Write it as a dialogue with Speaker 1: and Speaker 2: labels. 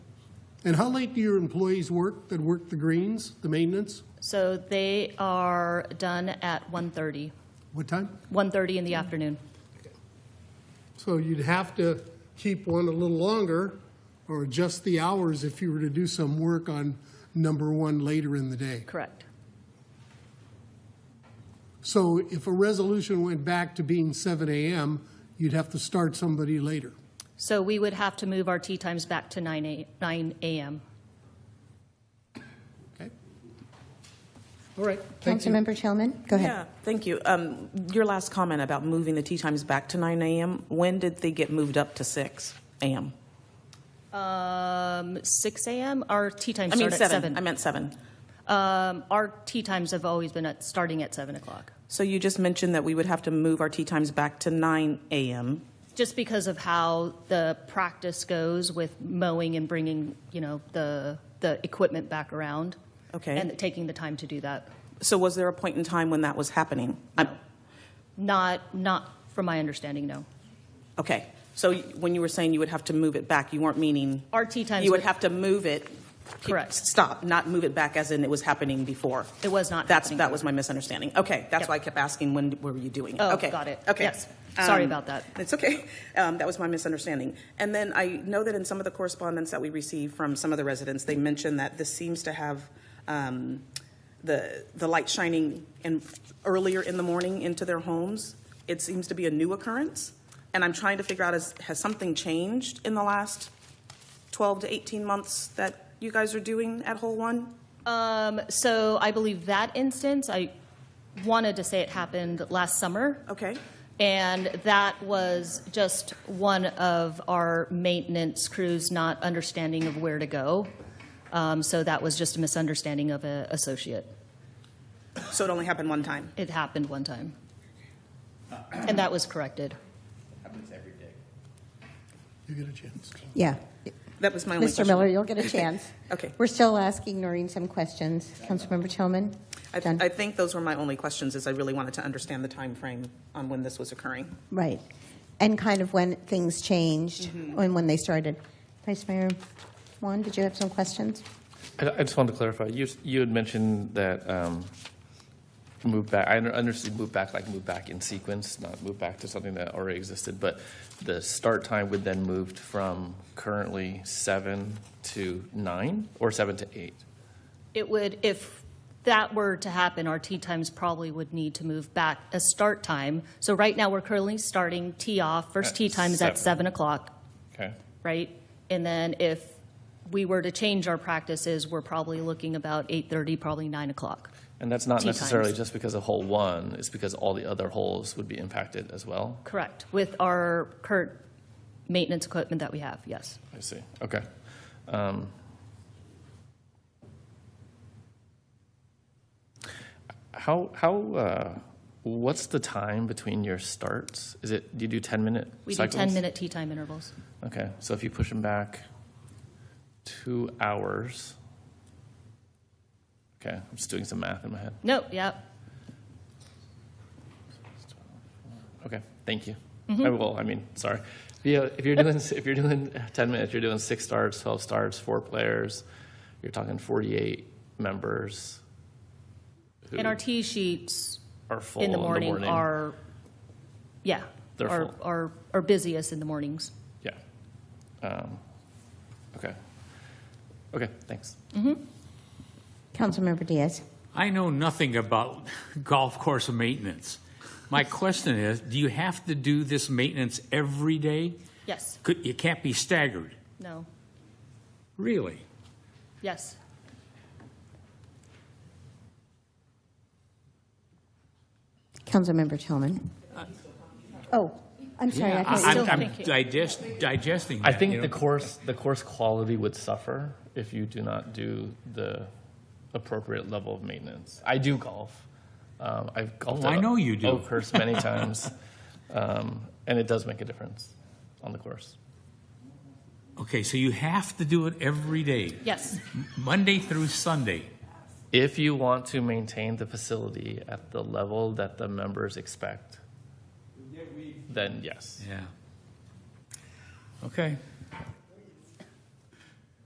Speaker 1: And how late do your employees work that work the greens, the maintenance?
Speaker 2: So they are done at 1:30,
Speaker 1: What time?
Speaker 2: 1:30 in the afternoon.
Speaker 1: So you'd have to keep one a little longer or adjust the hours if you were to do some work on number one later in the day.
Speaker 2: Correct.
Speaker 1: So if a resolution went back to being 7 a.m., you'd have to start somebody later.
Speaker 2: So we would have to move our tea times back to 9 a- 9 a.m.
Speaker 1: Okay? All right. Thank you.
Speaker 3: Councilmember Chelman, go ahead.
Speaker 4: Yeah, thank you. Um, Your last comment about moving the tea times back to 9 a.m., when did they get moved up to 6 a.m.?
Speaker 2: Um, 6 a.m. Our tea times
Speaker 4: I mean,
Speaker 2: start at
Speaker 4: 7.
Speaker 2: 7.
Speaker 4: I meant 7.
Speaker 2: Um, our tea times have always been at starting at 7 o'clock,
Speaker 4: So you just mentioned that we would have to move our tea times back to 9 a.m.
Speaker 2: just because of how the practice goes with mowing and bringing, you know, the the equipment back around.
Speaker 4: Okay.
Speaker 2: And taking the time to do that.
Speaker 4: So was there a point in time when that was happening? I'm-
Speaker 2: Not not from my understanding, no.
Speaker 4: Okay, so y- when you were saying you would have to move it back, you weren't meaning?
Speaker 2: Our tea times
Speaker 4: You would
Speaker 2: would-
Speaker 4: have to move it?
Speaker 2: Correct.
Speaker 4: Stop, not move it back as in it was happening before?
Speaker 2: It was not
Speaker 4: That's,
Speaker 2: happening
Speaker 4: that was
Speaker 2: before.
Speaker 4: my misunderstanding. Okay, that's
Speaker 2: Yep.
Speaker 4: why I kept asking, when were you doing it?
Speaker 2: Oh,
Speaker 4: Okay,
Speaker 2: got it.
Speaker 4: Okay.
Speaker 2: Yes. Sorry
Speaker 4: Um,
Speaker 2: about that.
Speaker 4: It's okay. Um, That was my misunderstanding. And then I know that in some of the correspondence that we received from some of the residents, they mentioned that this seems to have um, the, the light shining in, earlier in the morning into their homes. It seems to be a new occurrence. And I'm trying to figure out, is, has something changed in the last 12 to 18 months that you guys are doing at Hole One?
Speaker 2: Um, so I believe that instance, I wanted to say it happened last summer.
Speaker 4: Okay.
Speaker 2: And that was just one of our maintenance crews not understanding of where to go. Um, so that was just a misunderstanding of an associate.
Speaker 4: So it only happened one time?
Speaker 2: It happened one time. And that was corrected.
Speaker 5: happens every day.
Speaker 1: You get a chance.
Speaker 3: Yeah.
Speaker 4: That was my only
Speaker 3: Mr.
Speaker 4: question.
Speaker 3: Miller, you'll get a chance.
Speaker 4: Okay.
Speaker 3: We're still asking Noreen some questions. Councilmember Chelman?
Speaker 4: I,
Speaker 3: done?
Speaker 4: I think those were my only questions, is I really wanted to understand the time frame on when this was occurring.
Speaker 3: Right. And kind of when things changed
Speaker 4: Mm-hmm.
Speaker 3: and when they started. Vice Mayor Juan, did you have some questions?
Speaker 6: I I just wanted to clarify, you, you had mentioned that um, move back, I under- understood move back, like move back in sequence, not move back to something that already existed, but the start time would then moved from currently seven to nine, or seven to eight?
Speaker 2: It would, if that were to happen, our tea times probably would need to move back a start time. So right now, we're currently starting tea off, first
Speaker 6: At
Speaker 2: tea times at 7
Speaker 6: seven.
Speaker 2: o'clock.
Speaker 6: Okay,
Speaker 2: right? And then if we were to change our practices, we're probably looking about 8:30, probably 9 o'clock.
Speaker 6: and that's not
Speaker 2: Tea
Speaker 6: necessarily
Speaker 2: times.
Speaker 6: just because of hole one, it's because all the other holes would be impacted as well?
Speaker 2: Correct, with our current maintenance equipment that we have, yes.
Speaker 6: I see, okay. Um, How, how, uh, what's the time between your starts? Is it, do you do 10-minute cycles?
Speaker 2: We do 10-minute tea time intervals.
Speaker 6: Okay, so if you push them back two hours, okay, I'm just doing some math in my head.
Speaker 2: No, yep,
Speaker 6: Okay, thank you. I will, I mean, sorry. Mm-hmm. Yeah, if you're doing, if you're doing 10 minutes, you're doing six stars, 12 stars, four players, you're talking 48 members who
Speaker 2: and our tea sheets
Speaker 6: are full
Speaker 2: in the morning are, yeah,
Speaker 6: They're
Speaker 2: are,
Speaker 6: full.
Speaker 2: are are busiest in the mornings.
Speaker 6: Yeah. Um, Okay. Okay, thanks.
Speaker 3: Councilmember Diaz?
Speaker 7: I know nothing about golf course maintenance. My question is, do you have to do this maintenance every day?
Speaker 2: Yes,
Speaker 7: Could, it can't be staggered,
Speaker 2: no,
Speaker 7: really?
Speaker 2: yes.
Speaker 3: Councilmember Chelman?
Speaker 4: Uh,
Speaker 3: Oh, I'm sorry. I
Speaker 7: Yeah,
Speaker 3: thought you
Speaker 2: still
Speaker 7: I'm, I'm
Speaker 2: thinking.
Speaker 7: digest, digesting
Speaker 6: I
Speaker 7: that, you
Speaker 6: think the
Speaker 7: know.
Speaker 6: course, the course quality would suffer if you do not do the appropriate level of maintenance. I do golf. Um, I've golfed.
Speaker 7: Oh, I
Speaker 6: at
Speaker 7: know you do.
Speaker 6: Oakhurst many times, um, and it does make a difference on the course.
Speaker 7: Okay, so you have to do it every day,
Speaker 2: Yes,
Speaker 7: Monday through Sunday.
Speaker 6: If you want to maintain the facility at the level that the members expect, then yes.
Speaker 7: Yeah. Okay.